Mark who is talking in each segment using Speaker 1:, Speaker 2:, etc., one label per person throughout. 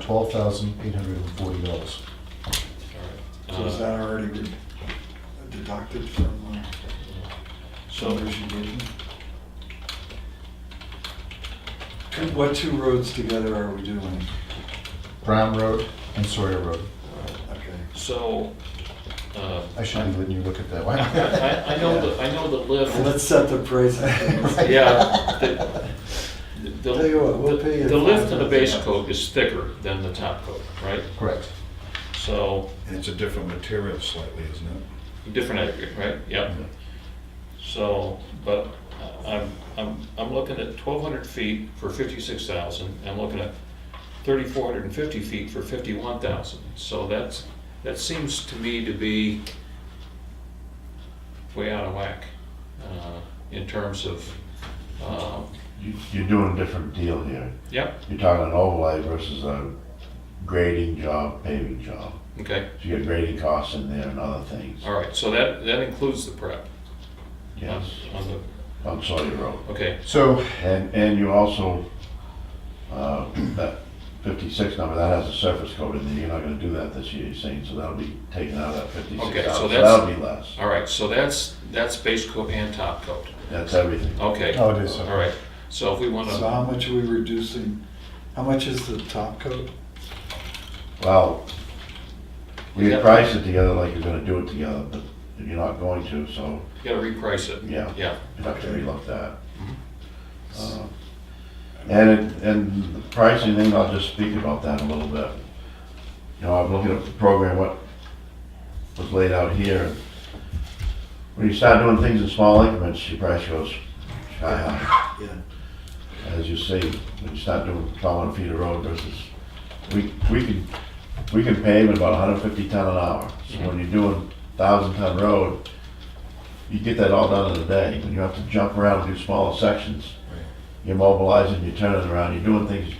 Speaker 1: twelve thousand eight hundred and forty dollars.
Speaker 2: So is
Speaker 3: Uh,
Speaker 2: that already re- deducted from uh,
Speaker 3: So,
Speaker 2: shoulders you gave me? Two- What two roads together are we doing?
Speaker 1: Brown Road and Sawyer Road.
Speaker 2: Okay.
Speaker 3: so, uh,
Speaker 1: I should be letting you look at that one.
Speaker 3: I, I know the, I know the lift.
Speaker 2: Let's uh, set the price. of things.
Speaker 3: Yeah. the- the-
Speaker 2: Tell you what, we'll pay you
Speaker 3: The lift of the
Speaker 2: $500.
Speaker 3: base coat is thicker than the top coat, right?
Speaker 1: Correct.
Speaker 3: So,
Speaker 4: And it's a different material slightly, isn't it?
Speaker 3: different aggregate, right? Yep. So, but I'm, I'm, I'm looking at twelve hundred feet for fifty-six thousand, I'm looking at thirty-four hundred and fifty feet for fifty-one thousand. So that's, that seems to me to be way out of whack, uh, in terms of, uh,
Speaker 5: You- You're doing a different deal here.
Speaker 3: yep,
Speaker 5: You're talking an overlay versus a grading job, paving job.
Speaker 3: okay,
Speaker 5: So you got grading costs in there and other things.
Speaker 3: all right, so that, that includes the prep. on-
Speaker 5: Yes,
Speaker 3: On the,
Speaker 5: on Sawyer Road.
Speaker 3: okay,
Speaker 1: So,
Speaker 5: And, and you also, uh, that fifty-six number, that has a surface coat in there. You're not gonna do that this year, you're saying, so that'll be taken out of that fifty-six
Speaker 3: Okay, so
Speaker 5: thousand.
Speaker 3: that's-
Speaker 5: That'll be less.
Speaker 3: all right, so that's, that's base coat and top coat,
Speaker 5: That's everything.
Speaker 3: okay, all
Speaker 1: oh, it is. okay.
Speaker 3: right. So if we wanna.
Speaker 2: So how much are we reducing? How much is the top coat?
Speaker 5: Well, we
Speaker 3: Yeah.
Speaker 5: had priced it together like you're gonna do it together, but you're not going to, so
Speaker 3: You gotta reprice it.
Speaker 5: Yeah.
Speaker 3: Yeah,
Speaker 5: you'd have to
Speaker 2: Okay.
Speaker 5: relook that. Uh, And, it- and the pricing thing, I'll just speak about that a little bit. You know, I'm looking at the program, what was laid out here. When you start doing things in small increments, your price goes sky high.
Speaker 2: Yeah.
Speaker 5: As you see, when you start doing twelve hundred feet of road versus, we, we can, we can pave at about hundred fifty ton an hour. So when you're doing thousand ton road, you get that all done in a day. When you have to jump around and do smaller sections, you're mobilizing, you're turning around, you're doing things,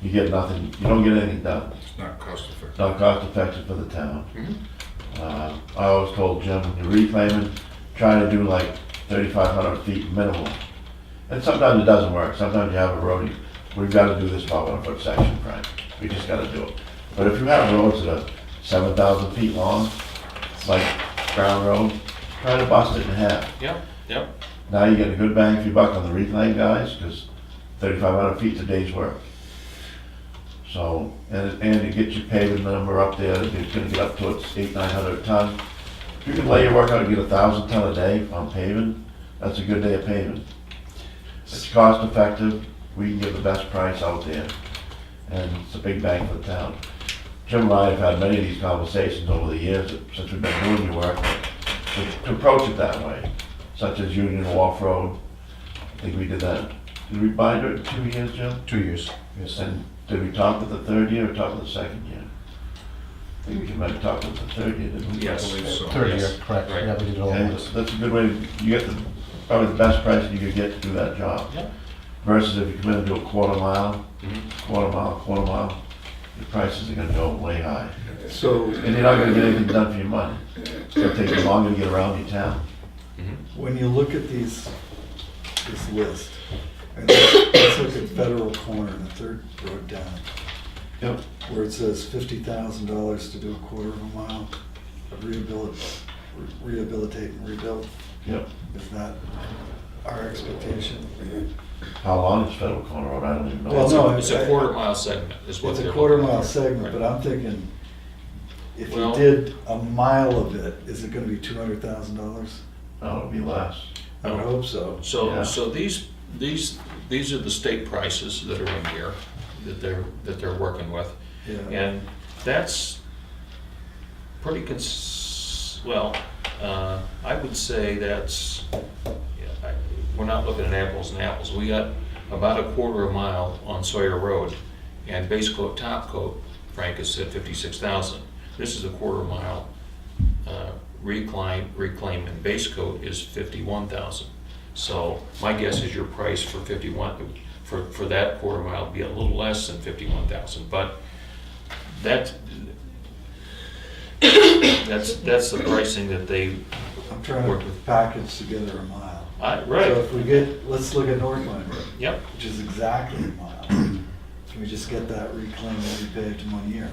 Speaker 5: you get nothing, you don't get anything done.
Speaker 4: It's not cost effective.
Speaker 5: It's not cost effective for the town. Uh, I always told Jim, when you're reclaiming, try to do like thirty-five hundred feet minimum. And sometimes it doesn't work, sometimes you have a road, you- we've gotta do this twelve hundred foot section, Frank, we just gotta do it. But if you have roads that are seven thousand feet long, like Brown Road, try to bust it in half.
Speaker 3: yeah, yeah.
Speaker 5: Now you get a good bang for your buck on the reclaim guys, because thirty-five hundred feet's a day's work. So, and, and to get your paving number up there, it's gonna get up to its eight, nine hundred ton. If you can lay your work out and get a thousand ton a day on paving, that's a good day of paving. It's cost effective, we can give the best price out there, and it's a big bang for the town. Jim and I have had many of these conversations over the years, since we've been doing your work, to- to approach it that way such as Union Wharf Road. I think we did that, did we buy it in two years, Jim?
Speaker 1: Two years, yes.
Speaker 5: And did we talk with the third year or talk with the second year? I think we might have talked with the third year, didn't we?
Speaker 3: Yes.
Speaker 4: I believe so.
Speaker 1: Third year,
Speaker 3: Yes,
Speaker 1: correct.
Speaker 3: right.
Speaker 1: Yeah, we did all
Speaker 5: Okay,
Speaker 1: of
Speaker 5: that's,
Speaker 1: this.
Speaker 5: that's a good way, to- you get the, probably the best price you could get to do that job.
Speaker 3: Yeah.
Speaker 5: Versus if you come in and do a quarter mile,
Speaker 2: Mm-hmm.
Speaker 3: Mhm.
Speaker 5: quarter mile, quarter mile, your prices are gonna go way high.
Speaker 2: So
Speaker 5: And you're not gonna get anything done for your money. It's gonna take you longer to get around your town.
Speaker 2: when you look at these, this list, and let's look at Federal Corner, the third road down,
Speaker 5: Yep.
Speaker 2: where it says fifty thousand dollars to do a quarter of a mile of rehabilit, rehabilitate and rebuild.
Speaker 5: Yep.
Speaker 2: Is that our expectation?
Speaker 5: How long is Federal Corner Road? I don't even know.
Speaker 2: Well, no, I-
Speaker 3: It's a quarter mile segment is what
Speaker 2: It's
Speaker 3: they're.
Speaker 2: a quarter
Speaker 3: looking
Speaker 2: mile
Speaker 3: for.
Speaker 2: segment,
Speaker 3: Right.
Speaker 2: but I'm thinking, if you
Speaker 3: Well-
Speaker 2: did a mile of it, is it gonna be two hundred thousand dollars?
Speaker 5: No, it'll be less.
Speaker 2: I would
Speaker 3: No.
Speaker 2: hope so.
Speaker 3: So,
Speaker 5: Yeah.
Speaker 3: so these, these, these are the state prices that are in here, that they're, that they're working with.
Speaker 2: Yeah,
Speaker 3: And that's pretty cons, well, uh, I would say that's, yeah, I- we're not looking at apples and apples. We got about a quarter of a mile on Sawyer Road, and base coat, top coat, Frank has said fifty-six thousand. This is a quarter mile, uh, recline, reclaim, and base coat is fifty-one thousand. So my guess is your price for fifty-one, for, for that quarter mile would be a little less than fifty-one thousand, but that's, that's, that's the pricing that they,
Speaker 2: I'm trying
Speaker 3: Work
Speaker 2: to
Speaker 3: with-
Speaker 2: package together a mile.
Speaker 3: I,
Speaker 2: So
Speaker 3: right,
Speaker 2: if we get, let's look at Northland Road,
Speaker 3: yep,
Speaker 2: which is exactly a mile. Can we just get that reclaimed and repaved in one year?